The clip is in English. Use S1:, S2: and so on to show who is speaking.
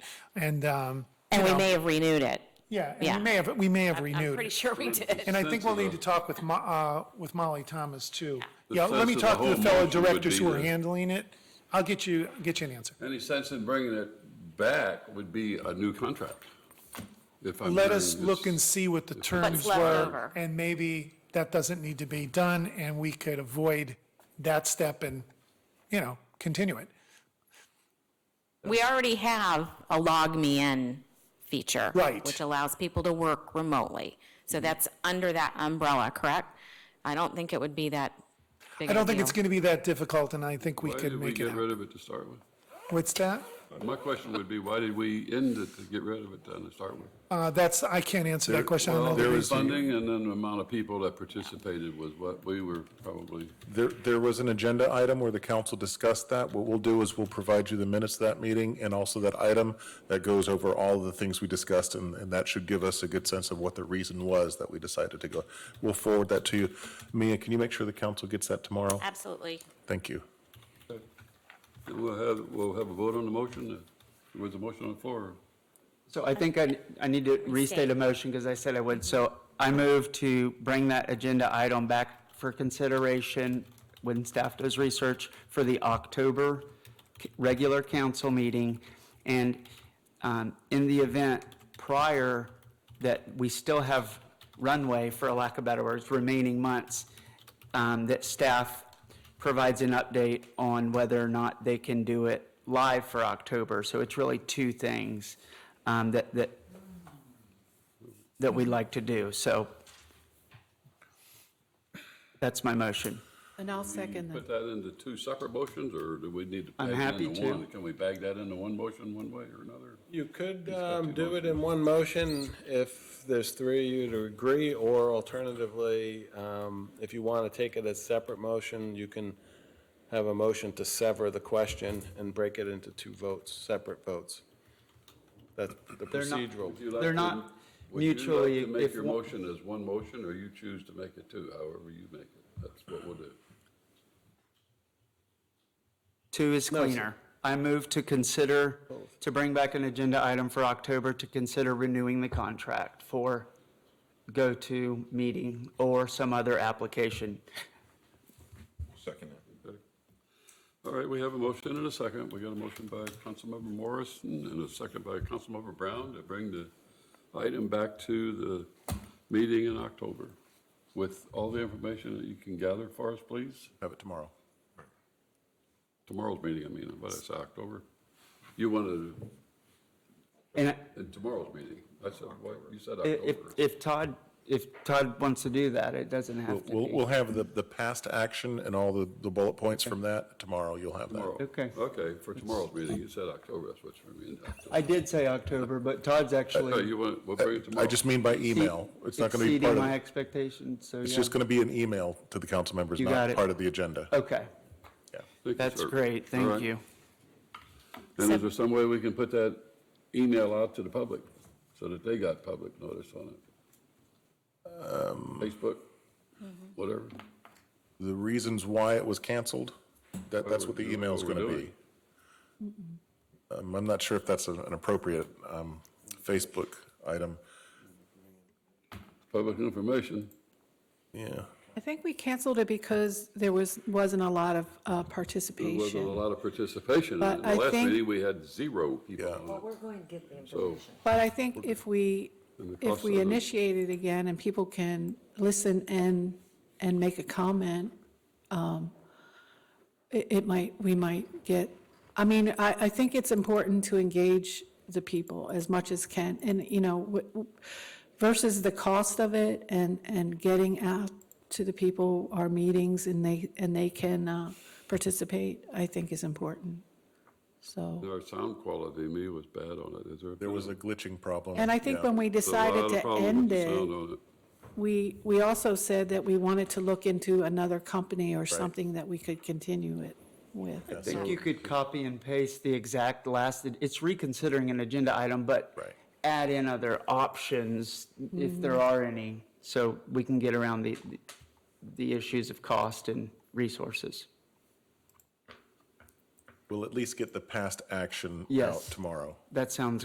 S1: And, um,
S2: And we may have renewed it.
S1: yeah, and
S2: Yeah.
S1: we may have, we may have
S3: I'm
S1: renewed.
S3: pretty
S1: it.
S3: sure we did.
S1: And I think we'll need to talk with Mo, uh, with Molly Thomas too.
S4: The
S1: Yeah, let me
S4: sense of the
S1: talk to the
S4: whole
S1: fellow
S4: motion would
S1: directors
S4: be
S1: who are
S4: that-
S1: handling it. I'll get you, get you an answer.
S4: Any sense in bringing it back would be a new contract. If I'm
S1: Let us
S4: hearing
S1: look
S4: this-
S1: and see what the terms
S3: left
S1: were.
S3: over.
S1: And maybe that doesn't need to be done and we could avoid that step and, you know, continue it.
S2: We already have a log me in feature.
S1: Right. Mm-hmm.
S2: Which allows people to work remotely. So that's under that umbrella, correct? I don't think it would be that big
S1: I
S2: of a
S1: don't think it's
S2: deal.
S1: going to be that difficult and I think we
S4: Why
S1: could
S4: did we
S1: make it
S4: get
S1: out.
S4: rid of it to start with?
S1: What's that?
S4: My question would be, why did we end it to get rid of it then to start with?
S1: Uh, that's, I can't answer that question. I don't know
S4: Well,
S1: the uh,
S4: there was
S1: reason.
S4: funding and then the amount of people that participated was what we were probably,
S5: There, there was an agenda item where the council discussed that. What we'll do is we'll provide you the minutes of that meeting and also that item that goes over all of the things we discussed, and, and that should give us a good sense of what the reason was that we decided to go. We'll forward that to you. Mia, can you make sure the council gets that tomorrow?
S2: Absolutely.
S5: Thank you.
S4: and we'll have, we'll have a vote on the motion. There was a motion on the floor.
S6: So I think I, I need to restate a motion because I said I would. So I move to bring that agenda item back for consideration when staff does research for the October c- regular council meeting. And um, in the event prior that we still have runway, for a lack of better words, remaining months, um, that staff provides an update on whether or not they can do it live for October. So it's really two things um, that, that, that we'd like to do. So that's my motion.
S7: And I'll second that.
S4: Put that into two separate motions, or do we need to?
S6: I'm
S4: bag that
S6: happy
S4: into
S6: to.
S4: one? Can we bag that into one motion one way or another?
S8: You could um, do it in one motion if there's three of you to agree, or alternatively, um, if you want to take it as separate motion, you can have a motion to sever the question and break it into two votes, separate votes. That's the
S6: They're not-
S8: procedural.
S4: Would you like
S6: They're
S4: to-
S6: not
S4: Would you
S6: mutually-
S4: like to make
S6: if
S4: your
S6: one-
S4: motion as one motion, or you choose to make it two, however you make it? That's what we'll do.
S6: Two is cleaner. I move to consider, to bring back an agenda item for October to consider renewing the contract for go-to meeting or some other application.
S4: All right, we have a motion and a second. We got a motion by Councilmember Morrison and a second by Councilmember Brown to bring the item back to the meeting in October with all the information that you can gather for us, please.
S5: Have it tomorrow.
S4: Tomorrow's meeting, I mean, what did I say, October? You wanted,
S6: And I-
S4: in tomorrow's meeting. I said, what, you said
S6: If,
S4: October.
S6: if Todd, if Todd wants to do that, it doesn't have to
S5: We'll,
S6: be.
S5: we'll have the, the past action and all the, the bullet points from that tomorrow. You'll have that.
S4: Tomorrow.
S6: Okay.
S4: Okay, for tomorrow's meeting, you said October, that's what you mean. October.
S6: I did say October, but Todd's
S4: Oh,
S6: actually
S4: you want, we'll bring it tomorrow.
S5: Uh, I just mean by email. It's not going to be part
S6: exceeding my
S5: of,
S6: expectations, so
S5: it's
S6: yeah.
S5: just going to be an email to the council members,
S6: You got
S5: not
S6: it. Uh,
S5: part of the agenda.
S6: Okay,
S4: Thank you,
S6: that's
S4: sir.
S6: great,
S4: All right.
S6: thank you.
S4: And is there some way we can put that email out to the public so that they got public notice on it?
S7: Um,
S4: Facebook,
S7: Mm-hmm.
S4: whatever.
S5: the reasons why it was canceled? That, that's what the
S4: we're doing-
S5: email's
S4: what
S5: going to
S4: we're
S5: be. Um, I'm not sure if that's an an appropriate um, Facebook item.
S4: Public information.
S5: Yeah.
S7: I think we canceled it because there was, wasn't a lot of uh,
S4: There wasn't a
S7: participation.
S4: lot of participation. In
S7: But
S4: the
S7: I
S4: last
S7: think-
S4: meeting, we had zero people
S5: Yeah.
S4: on it.
S9: We're going to get the
S4: So
S9: information.
S7: But I think if we,
S4: And the
S7: if
S4: cost
S7: we
S4: of it.
S7: initiate it again and people can listen and, and make a comment, um, it, it might, we might get, I mean, I, I think it's important to engage the people as much as can, and, you know, w- w- versus the cost of it and, and getting out to the people, our meetings, and they, and they can uh, participate, I think is important, so.
S4: Our sound quality, me, was bad on it. Is there?
S5: There was a glitching problem.
S7: And I think when we decided to end it. We, we also said that we wanted to look into another company or something that we could continue it with.
S6: I think you could copy and paste the exact last, it's reconsidering an agenda item, but
S5: Right.
S6: add in other options if there are any, so we can get around the, the issues of cost and resources.
S5: We'll at least get the past action out
S6: Yes.
S5: tomorrow.
S6: That sounds